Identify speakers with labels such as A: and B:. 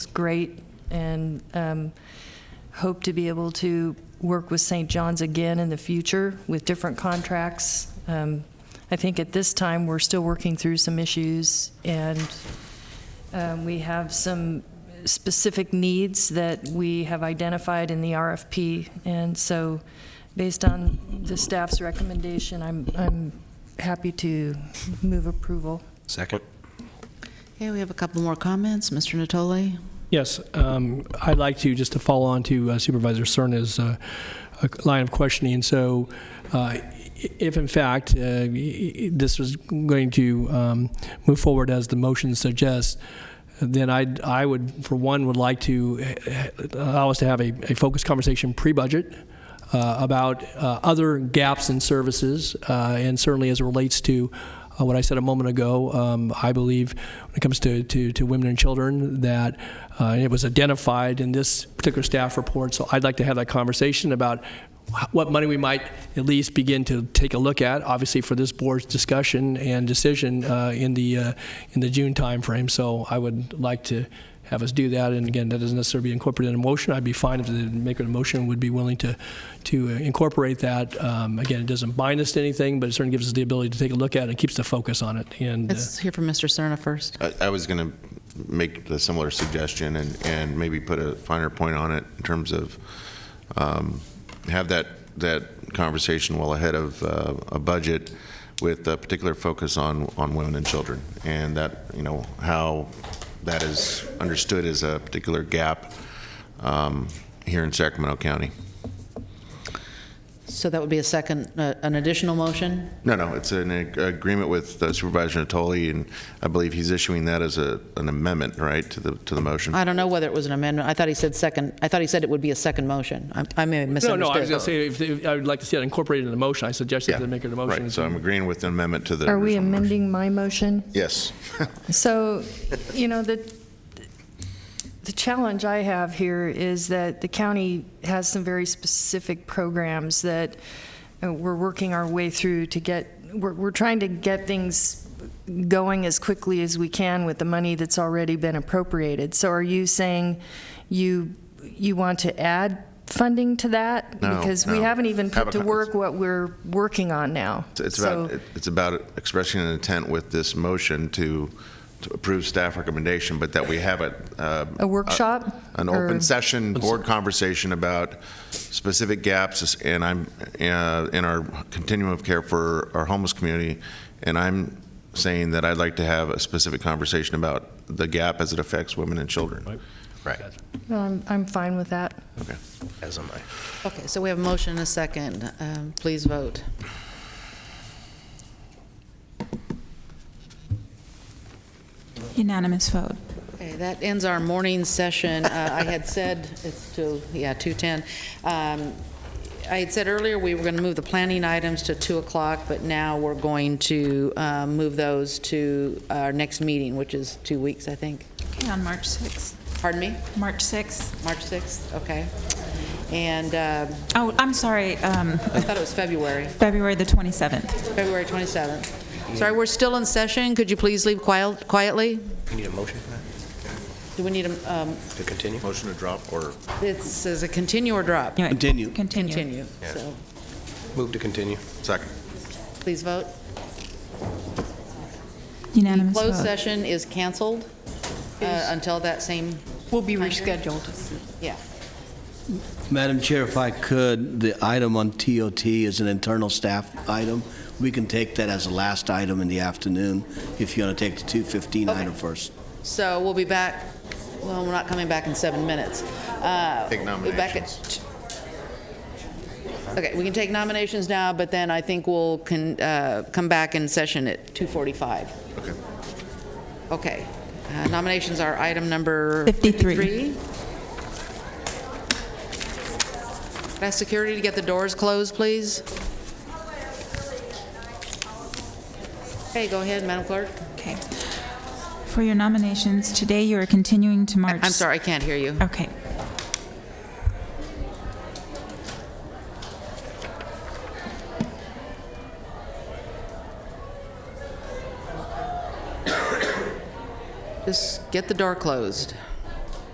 A: It's great, and um, hope to be able to work with St. John's again in the future with different contracts. Um, I think at this time, we're still working through some issues, and um, we have some specific needs that we have identified in the RFP. And so, based on the staff's recommendation, I'm, I'm happy to move approval.
B: Second.
C: Okay, we have a couple more comments. Mr. Natoli?
D: Yes, um, I'd like to, just to follow on to uh, Supervisor Cerna's uh, uh, line of questioning. So uh, i- if in fact uh, y- y- this was going to um, move forward as the motion suggests, then I'd, I would, for one, would like to uh, allow us to have a a focused conversation pre-budget uh, about uh, other gaps in services, uh, and certainly as it relates to uh, what I said a moment ago, um, I believe when it comes to, to, to women and children that uh, and it was identified in this particular staff report. So I'd like to have that conversation about wh- what money we might at least begin to take a look at, obviously for this board's discussion and decision uh, in the uh, in the June timeframe. So I would like to have us do that. And again, that doesn't necessarily be incorporated in a motion. I'd be fine if the maker of the motion would be willing to, to uh, incorporate that. Um, again, it doesn't bind us to anything, but it certainly gives us the ability to take a look at it and keeps the focus on it. And uh,
C: Let's hear from Mr. Cerna first.
B: I, I was going to make a similar suggestion and, and maybe put a finer point on it in terms of um, have that that conversation well ahead of uh, a budget with a particular focus on on women and children and that you know how that is understood as a particular gap um, here in Sacramento County.
C: So that would be a second, uh, an additional motion?
B: No, no, it's an ag- agreement with uh, Supervisor Natoli, and I believe he's issuing that as a, an amendment, right, to the, to the motion?
C: I don't know whether it was an amendment. I thought he said second, I thought he said it would be a second motion. I- I may have
D: no,
C: misunderstood.
D: no, I was going to say, if, if- I would like to see that incorporated in the motion. I suggested
B: Yeah,
D: the maker of the motion.
B: Right, so I'm agreeing with the amendment to the.
A: Are we
B: original motion.
A: amending my motion?
B: Yes.
A: So, you know, the, the challenge I have here is that the county has some very specific programs that uh, we're working our way through to get, we're, we're trying to get things going as quickly as we can with the money that's already been appropriated. So are you saying you, you want to add funding to that?
B: No,
A: Because we
B: no.
A: haven't even
B: Have
A: put to
B: a con-
A: work what we're working on now.
B: It's- It's about,
A: So-
B: it's about expressing an intent with this motion to to approve staff recommendation, but that we have a. uh,
A: A workshop?
B: An
A: or-
B: open session, board conversation about specific gaps, and I'm, uh, in our continuum of care for our homeless community, and I'm saying that I'd like to have a specific conversation about the gap as it affects women and children. Right.
A: No, I'm, I'm fine with that.
B: Okay. As am I.
C: Okay, so we have a motion and a second. Um, Please vote.
E: Unanimous vote.
C: Okay, that ends our morning session. Uh, I had said, it's to, yeah, 2:10. Um, I had said earlier, we were going to move the planning items to 2 o'clock, but now we're going to um, move those to our next meeting, which is two weeks, I think.
E: Okay, on March 6th.
C: Pardon me?
E: March 6th.
C: March 6th? Okay. And um,
E: Oh, I'm sorry, um,
C: I thought it was February,
E: February the 27th.
C: February 27th. Sorry, we're still in session. Could you please leave quil- quietly?
F: You Need a motion for that,
C: Do we need a, um,
F: to continue?
B: Motion to drop or?
C: it says a continue or drop?
E: Anyway,
F: Continue.
E: Continue.
C: Continue. So
F: Move to continue.
B: Second.
C: please vote.
E: Unanimous
C: Closed
E: vote.
C: session is canceled uh, until that same,
G: Will be rescheduled.
C: yeah.
H: Madam Chair, if I could, the item on TOT is an internal staff item. We can take that as a last item in the afternoon, if you want to take the 215
C: Okay.
H: item first.
C: So we'll be back, well, we're not coming back in seven minutes. Uh,
B: Take
C: we'll be back at- Okay, we can take nominations now, but then I think we'll can, uh, come back in session at 2:45.
B: Okay.
C: Okay. Uh, Nominations are item number...
E: 53.
C: 53. Could I ask security to get the doors closed, please? Okay, go ahead, Madam Clerk.
E: Okay. For your nominations, today you are continuing to March.
C: I'm sorry, I can't hear you.
E: Okay.
C: Just get the door closed.